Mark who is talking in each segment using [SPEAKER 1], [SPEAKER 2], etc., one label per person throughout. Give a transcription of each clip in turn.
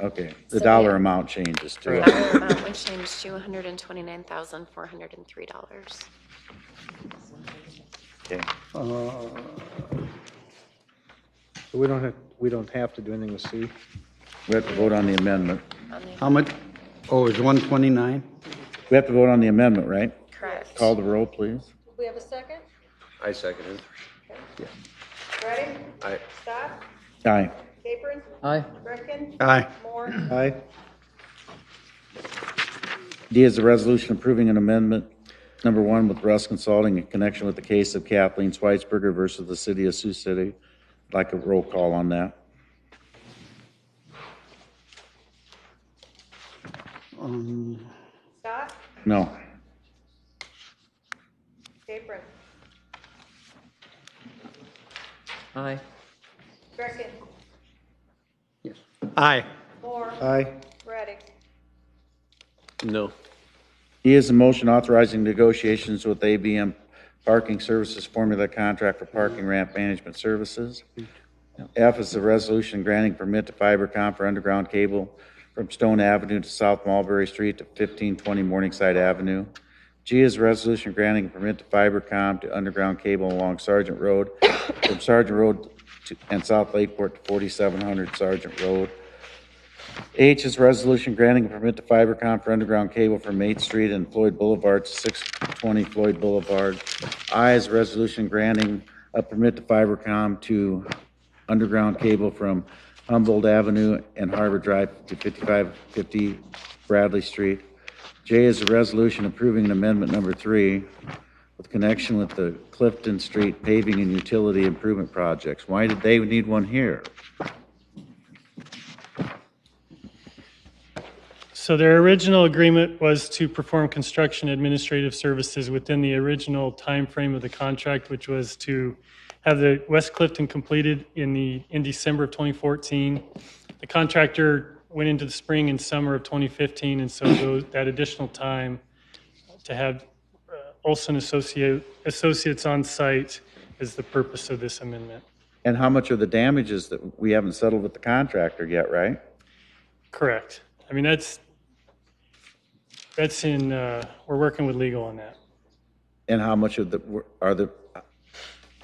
[SPEAKER 1] Okay,
[SPEAKER 2] So,
[SPEAKER 1] the
[SPEAKER 2] yeah.
[SPEAKER 1] dollar amount changes too.
[SPEAKER 2] The dollar amount uh, would change to $129,403.
[SPEAKER 1] Okay,
[SPEAKER 3] Uh, So we don't have, we don't have to do anything with C?
[SPEAKER 1] we have to vote on the amendment.
[SPEAKER 2] on the-
[SPEAKER 4] How much? Oh, it's 129?
[SPEAKER 1] We have to vote on the amendment, right?
[SPEAKER 2] Correct.
[SPEAKER 1] Call the roll, please.
[SPEAKER 5] We have a second?
[SPEAKER 6] I second it.
[SPEAKER 5] Ready?
[SPEAKER 6] I,
[SPEAKER 5] Stop.
[SPEAKER 1] Aye.
[SPEAKER 5] Capron.
[SPEAKER 7] Aye.
[SPEAKER 5] Greckin.
[SPEAKER 4] Aye.
[SPEAKER 5] Moore.
[SPEAKER 3] Aye?
[SPEAKER 1] D is a resolution approving an amendment, number one, with Russ Consulting in connection with the case of Kathleen Schweitzer versus the city of Sioux City. I'd Like a roll call on that.
[SPEAKER 4] Um,
[SPEAKER 5] Stop.
[SPEAKER 1] No.
[SPEAKER 5] Capron.
[SPEAKER 7] Aye.
[SPEAKER 5] Greckin.
[SPEAKER 4] Aye.
[SPEAKER 5] Moore.
[SPEAKER 3] Aye?
[SPEAKER 5] Ready.
[SPEAKER 6] no.
[SPEAKER 1] E is a motion authorizing negotiations with ABM Parking Services Formula Contract for Parking Ramp Management Services. F is a resolution granting permit to FiberCom for underground cable from Stone Avenue to South Mulberry Street to 1520 Morningside Avenue. G is a resolution granting permit to FiberCom to underground cable along Sergeant Road from Sergeant Road to- and South Lakeport to 4700 Sergeant Road. H is resolution granting a permit to Fibercom for underground cable from 8th Street and Floyd Boulevard to 620 Floyd Boulevard. I is resolution granting a permit to Fibercom to underground cable from Humboldt Avenue and Harbor Drive to 5550 Bradley Street. J is a resolution approving an amendment number three with connection with the Clifton Street paving and utility improvement projects. Why did they need one here?
[SPEAKER 8] So their original agreement was to perform construction administrative services within the original timeframe of the contract, which was to have the West Clifton completed in the, in December of 2014. The contractor went into the spring and summer of 2015, and so those- that additional time to have uh, Olson Associate- Associates on site is the purpose of this amendment.
[SPEAKER 1] And how much are the damages that we haven't settled with the contractor yet, right?
[SPEAKER 8] Correct. I mean, that's, that's in, uh, we're working with legal on that.
[SPEAKER 1] And how much of the, are the,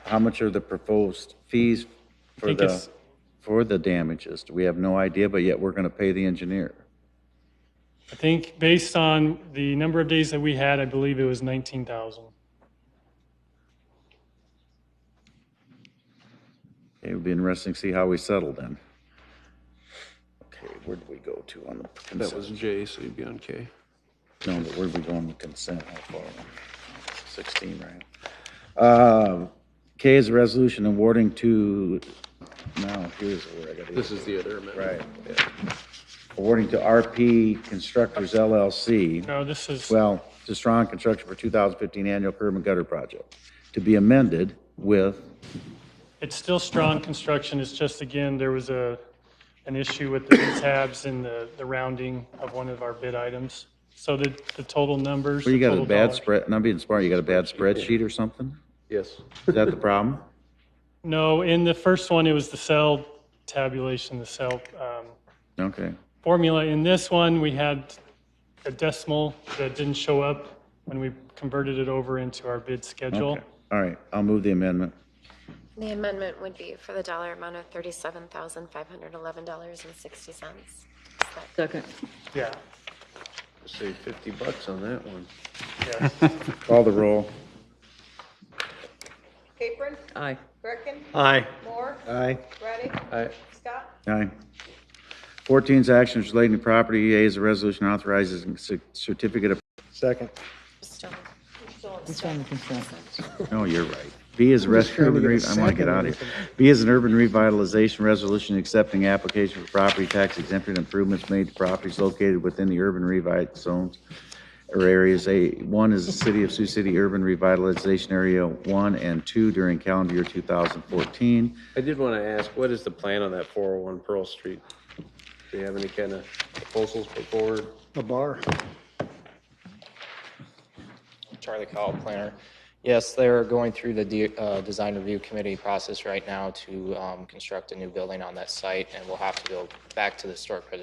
[SPEAKER 1] how much are the proposed fees for
[SPEAKER 8] think
[SPEAKER 1] the,
[SPEAKER 8] it's-
[SPEAKER 1] for the damages? We have no idea, but yet we're going to pay the engineer.
[SPEAKER 8] I think based on the number of days that we had, I believe it was 19,000.
[SPEAKER 1] It would be interesting to see how we settle then. Okay, where did we go to on the
[SPEAKER 6] That was
[SPEAKER 1] consent?
[SPEAKER 6] J, so you'd be on K.
[SPEAKER 1] No, but where did we go on the consent? How far? 16, right? Uh, K is a resolution awarding to, now, here's where I got to.
[SPEAKER 6] This is the other amendment.
[SPEAKER 1] Right.
[SPEAKER 6] Yeah.
[SPEAKER 1] awarding to RP Constructors LLC,
[SPEAKER 8] No, this is,
[SPEAKER 1] well, to Strong Construction for 2015 Annual Curb and Gutter Project, to be amended with,
[SPEAKER 8] it's still strong construction, it's just, again, there was a, an issue with the bid tabs and the, the rounding of one of our bid items. So the, the total numbers.
[SPEAKER 1] well, you
[SPEAKER 8] the
[SPEAKER 1] got a
[SPEAKER 8] total
[SPEAKER 1] bad
[SPEAKER 8] dollars-
[SPEAKER 1] spread, and I'm being smart, you got a bad spreadsheet or something?
[SPEAKER 6] Yes.
[SPEAKER 1] Is that the problem?
[SPEAKER 8] No, in the first one, it was the cell tabulation, the cell um,
[SPEAKER 1] Okay,
[SPEAKER 8] formula. In this one, we had a decimal that didn't show up when we converted it over into our bid schedule.
[SPEAKER 1] okay, all right, I'll move the amendment.
[SPEAKER 2] The amendment would be for the dollar amount of $37,511.60.
[SPEAKER 7] Second.
[SPEAKER 8] Yeah,
[SPEAKER 6] Save 50 bucks on that one.
[SPEAKER 8] yeah.
[SPEAKER 1] Call the roll.
[SPEAKER 5] Capron.
[SPEAKER 7] Aye.
[SPEAKER 5] Greckin.
[SPEAKER 4] Aye.
[SPEAKER 5] Moore.
[SPEAKER 3] Aye?
[SPEAKER 5] Ready.
[SPEAKER 6] I,
[SPEAKER 5] Stop.
[SPEAKER 1] Aye. 14 is actions relating to property. A is a resolution authorizing cer- certificate of,
[SPEAKER 3] Second?
[SPEAKER 2] Still,
[SPEAKER 7] It's on the consent.
[SPEAKER 1] no, you're right. B is a res-
[SPEAKER 3] trying to
[SPEAKER 1] urban
[SPEAKER 3] get a
[SPEAKER 1] re- I want to get
[SPEAKER 3] second
[SPEAKER 1] out
[SPEAKER 3] or
[SPEAKER 1] of here. B is an urban revitalization resolution accepting application for property tax exemption improvements made to properties located within the urban revi zones or areas. A, one is the city of Sioux City Urban Revitalization Area One and Two during calendar year 2014.
[SPEAKER 6] I did want to ask, what is the plan on that 401 Pearl Street? Do you have any kind of proposals put forward?
[SPEAKER 3] A bar?
[SPEAKER 9] Charlie Cowell, planner. Yes, they're going through the de- uh, design review committee process right now to um, construct a new building on that site, and we'll have to go back to the historic preservation